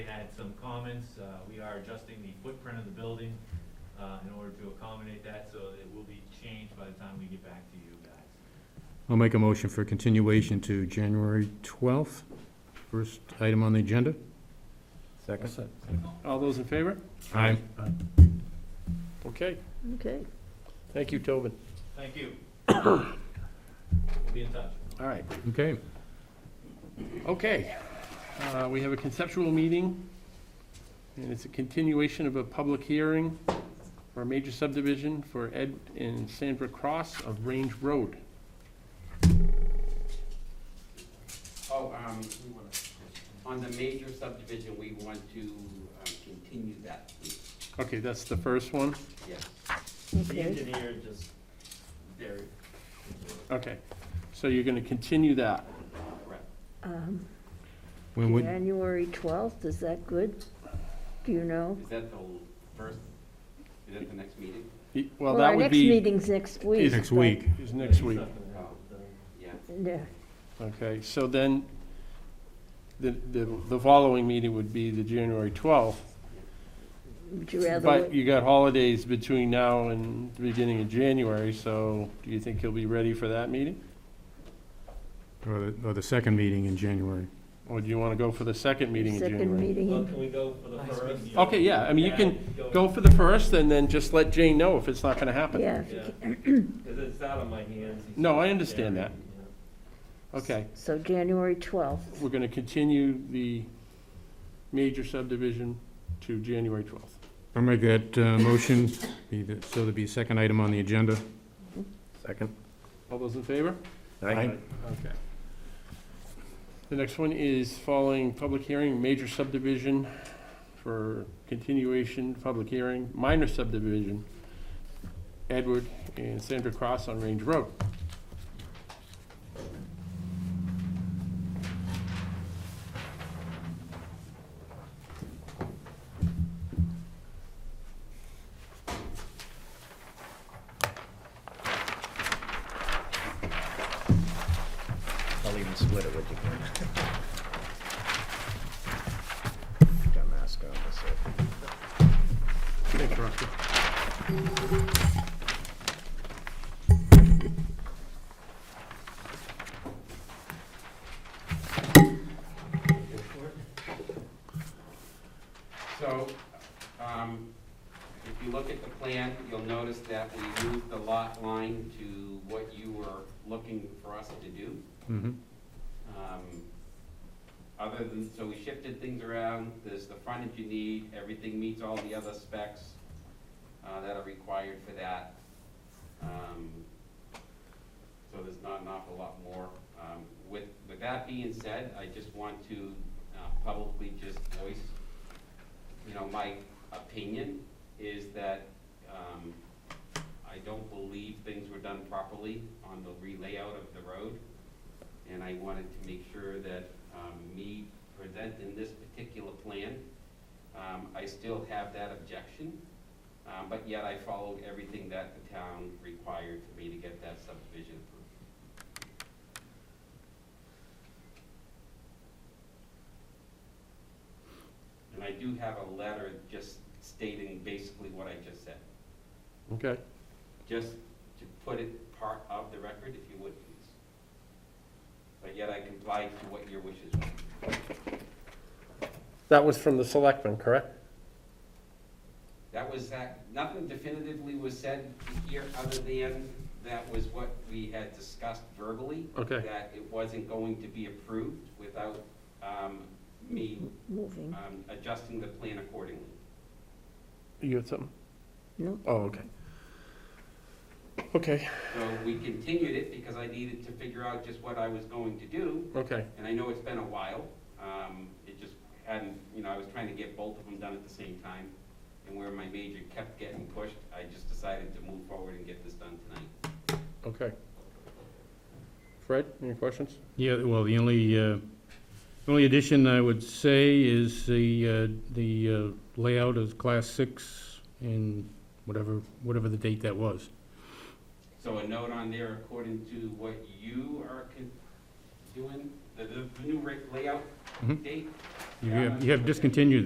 some comments. Uh, We are adjusting the footprint of the building uh, in order to accommodate that, so it will be changed by the time we get back to you guys. I'll make a motion for continuation to January 12th. First item on the agenda. Second? All those in favor? Aye. Okay, Okay. thank you, Tobin. Thank you. We'll be in touch. All right, Okay. okay. Uh, We have a conceptual meeting, and it's a continuation of a public hearing for a major subdivision for Ed and Sandra Cross of Range Road. Oh, um, we wanna- on the major subdivision, we want to um, continue that, please. Okay, that's the first one, yes. Okay. engineer just, there, okay. So you're gonna continue that. correct. um, When would, January 12th, is that good? Do you know? Is that the first, is that the next meeting? Y- Well, that would Our next be, meeting's next week. is next but- week? is next week. Oh, yeah. Yeah, Okay, so then, the, the the following meeting would be the January 12th. Would you rather? But wait- you got holidays between now and the beginning of January, so do you think you'll be ready for that meeting? or the, or the second meeting in January? Or do you want to go for the second meeting in Second January? meeting, Well, in- can we go for the first? Okay, yeah, I mean, you can go for the first and then just let Jane know if it's not going to happen. yeah. Yeah, because it's out of my hands. No, I understand that. Okay, So January 12th, we're going to continue the major subdivision to January 12th. I'll make that uh, motion, be the- so there'd be a second item on the agenda. Second? All those in favor? Aye. Okay. The next one is following public hearing, major subdivision for continuation, public hearing, minor subdivision, Edward and Sandra Cross on Range Road. I'll even split it with you. Got mask on, that's it. Thanks, Rocky. So, um, if you look at the plan, you'll notice that we moved the lot line to what you were looking for us to do. Mhm. Um, Other than, so we shifted things around, there's the frontage you need, everything meets all the other specs uh, that are required for that. Um, So there's not an awful lot more. Um, With, with that being said, I just want to uh, publicly just voice, you know, my opinion is that um, I don't believe things were done properly on the relayout of the road and I wanted to make sure that um, me presenting this particular plan, um, I still have that objection, um, but yet I followed everything that the town required for me to get that subdivision approved. And I do have a letter just stating basically what I just said, Okay, just to put it part of the record, if you would, please. But yet I complied to what your wishes were. that was from the selectmen, correct? That was that, nothing definitively was said here other than that was what we had discussed verbally, Okay, that it wasn't going to be approved without um, me moving, um, adjusting the plan accordingly. you had something? no? Oh, okay. Okay, So we continued it because I needed to figure out just what I was going to do, okay, and I know it's been a while. Um, It just hadn't, you know, I was trying to get both of them done at the same time, and where my major kept getting pushed, I just decided to move forward and get this done tonight. okay. Fred, any questions? Yeah, well, the only, uh, only addition I would say is the, uh, the uh, layout of Class 6 and whatever, whatever the date that was. So a note on there according to what you are con- doing, the, the new re- layout Mhm. date? You have, you have discontinued